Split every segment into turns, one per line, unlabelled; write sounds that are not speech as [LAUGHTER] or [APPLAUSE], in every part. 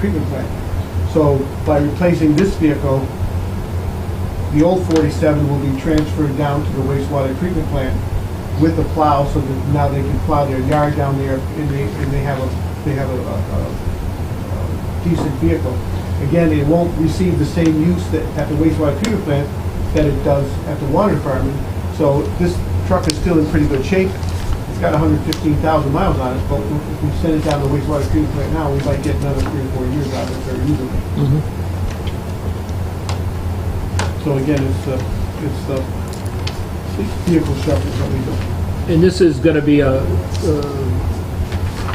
treatment plant. So by replacing this vehicle, the old 47 will be transferred down to the wastewater treatment plant with the plow, so that now they can plow their yard down there, and they, and they have a, they have a- a a decent vehicle. Again, it won't receive the same use that, at the wastewater treatment plant that it does at the water department, so this truck is still in pretty good shape. It's got 115,000 miles on it, but if we send it down to wastewater treatment plant now, we might get another three or four years out of it very easily.
Mm-hmm.
So again, it's the, it's the vehicle shuffle that we do.
And this is gonna be a, uh,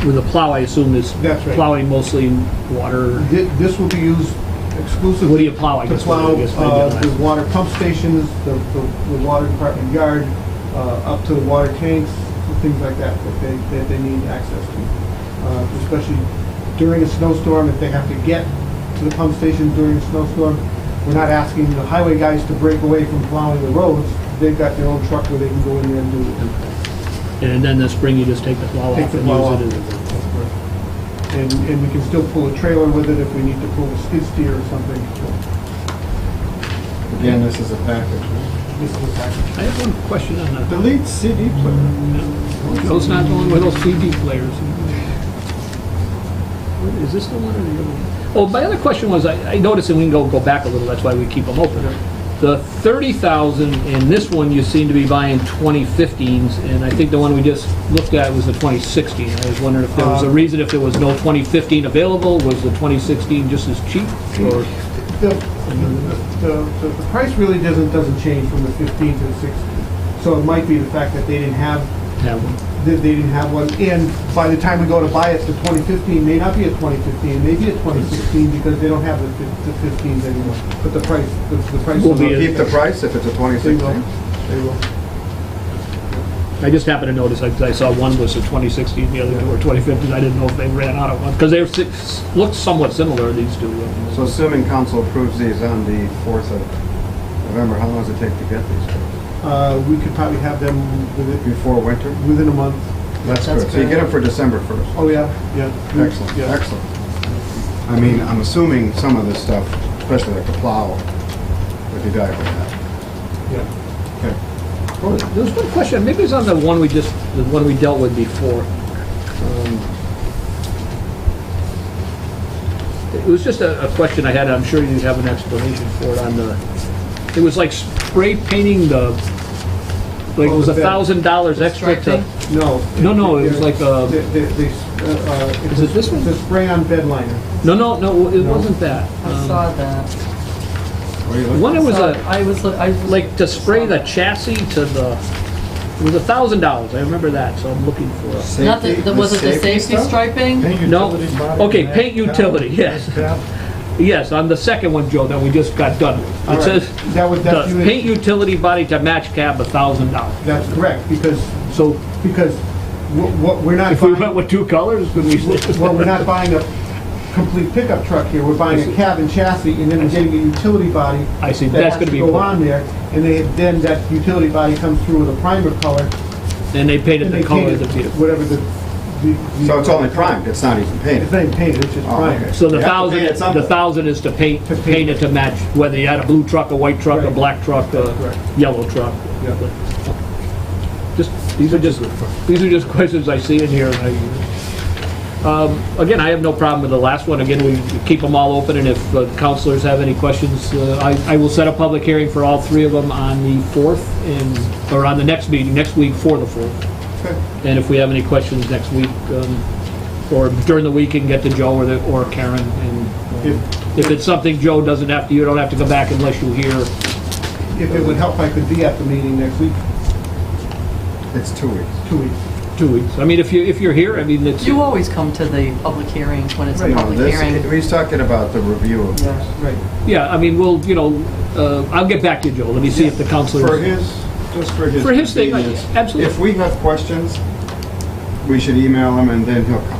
with a plow, I assume, is
That's right.
plowing mostly in water.
Thi- This will be used exclusively.
What do you plow, I
To
guess?
plow
I guess maybe I'll
uh,
ask.
the water pump stations, the, the- the water department yard, uh, up to the water tanks, things like that, that they, that they need access to. Uh, Especially during a snowstorm, if they have to get to the pump station during a snowstorm. We're not asking the highway guys to break away from plowing the roads. They've got their own truck where they can go in there and do it.
And then this spring, you just take the plow
Take
off
the
and
plow off.
use it as a...
And, and we can still pull a trailer with it if we need to pull a skid steer or something.
Again, this is a package.
This is a package.
I have one question on that.
Delete CD player.
Those not going with those CD players. What, Is this the one or the other one? Well, Oh, my other question was, I I noticed, and we can go, go back a little, that's why we keep them open. The 30,000, in this one, you seem to be buying 2015s, and I think the one we just looked at was the 2016. I was wondering if there was a
Uh,
reason, if there was no 2015 available, was the 2016 just as cheap? Or,
The, the, the- the price really doesn't, doesn't change from the 15 to the 16. So it might be the fact that they didn't have,
have one?
that they didn't have one. And by the time we go to buy it, the 2015 may not be a 2015, maybe a 2016 because they don't have the fif- the 15s anymore. But the price, the the price.
Will
will
be
not-
a-
Keep the price if it's a
They
2016.
will, they will.
I just happened to notice, I I saw one was a 2016, the other two were 2015, I didn't know if they ran out of one, because they're, si- looked somewhat similar, these two.
So assuming council approves these on the 4th of November, how long does it take to get these?
Uh, We could probably have them within,
Before winter?
within a month.
That's good. So you get them for December 1st.
Oh, yeah, yeah.
Excellent,
Yeah.
excellent. I mean, I'm assuming some of this stuff, especially like the plow, would be valuable.
Yeah.
Okay.
Well, There was one question, maybe it's on the one we just, the one we dealt with before. Um, It was just a, a question I had, I'm sure you have an explanation for it on the, it was like spray painting the, like it
Oh,
was
the
a
bed.
thousand dollars extra to.
striping?
No.
No, no, it was like, uh,
They- they- they, uh, uh,
Is it this one?
It's a spray-on bed liner.
No, no, no, it
No.
wasn't that.
I
Um,
saw that.
What are you looking
One, it was
Saw-
a,
I was, I was.
like to spray the chassis to the, it was a thousand dollars, I remember that, so I'm looking for a.
for?
Not the, the- was it the safety
stuff?
striping?
Paint
No.
utility body.
Okay,
mat,
paint
towel,
utility, yes.
towel.
Yes, on the second one, Joe, that we just got done with.
All
It
right.
says,
That was,
the
that's, you-
paint utility body to match cab, a thousand dollars.
that's correct, because,
So
because wh- what, we're not
if we went
buying,
with two colors, could we?
[LAUGHS] well, we're not buying a complete pickup truck here, we're buying a cab and chassis, and then we're getting a utility body.
I see,
that
that's
has
gonna
to
be,
Go
important.
on there, and they, then that utility body comes through with a primer color,
and they painted
and they
the color of
paint
the
it,
vehicle.
whatever the. the-
So it's only primed, it's not even painted?
It's not even painted, it's just
Oh,
primer.
okay.
So the
You have to
thousand,
paint it
the
something.
thousand is to paint,
To paint.
paint it to match, whether you had a blue truck, a white truck, a
Right.
black truck,
That's correct.
a yellow truck.
Yeah.
Just, these are just, these are just [LAUGHS] questions I see in here and I, um, again, I have no problem with the last one. Again, we keep them all open and if uh, counselors have any questions, uh, I, I will set a public hearing for all three of them on the 4th and, or on the next meeting, next week for the 4th. And if we have any questions next week, um, or during the week and get to Joe or the, or Karen and um, if it's something Joe doesn't have to, you don't have to go back unless you hear
If it would help, I could be at the meeting next week,
It's two weeks.
two weeks.
two weeks. I mean, if you, if you're here, I mean, it's.
You always come to the public hearings when it's a
Right.
No,
public
this,
hearing.
he's talking about the review of this.
Yeah.
Right.
Yeah, I mean, we'll, you know, uh, I'll get back to you, Joe. Let me see if the
For
counselors.
his, just for his.
For his thing, like,
convenience,
absolutely.
If we have questions, we should email him and then he'll come.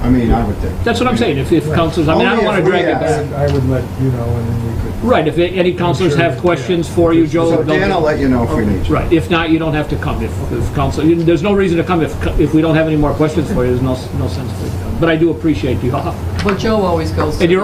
I mean, I would think.
That's what I'm saying, if, if counselors, I mean, I don't
Only
want to
if we
drag it
ask.
back.
I would let you know, and then we could.
Right, if any counselors
sure,
have
yeah.
questions for you, Joe,
So Dan, I'll
they'll-
let you know if we need you.
right, if not, you don't have to come. If, if council, you- there's no reason to come if, if we don't have any more questions for you, there's no, no sense for you to come.
but I do appreciate the offer.
[LAUGHS] But Joe always goes.
And you're